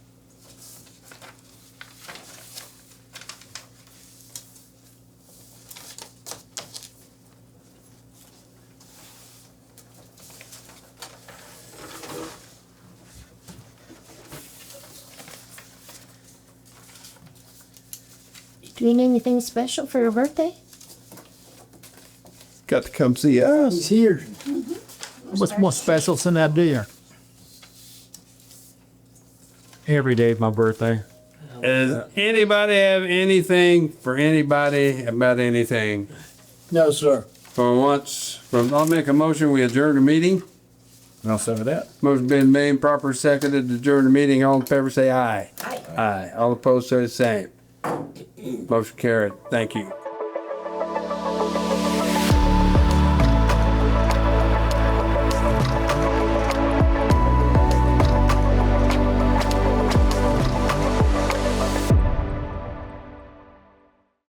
Doing anything special for your birthday? Got to come see us. He's here. What's more special than that deer? Every day of my birthday. Does anybody have anything for anybody about anything? No, sir. For once, from, I'll make a motion, we adjourn the meeting. I'll say that. Motion been made, proper seconded, to adjourn the meeting, all in favor say aye. Aye. Aye, all opposed say the same. Motion carried, thank you.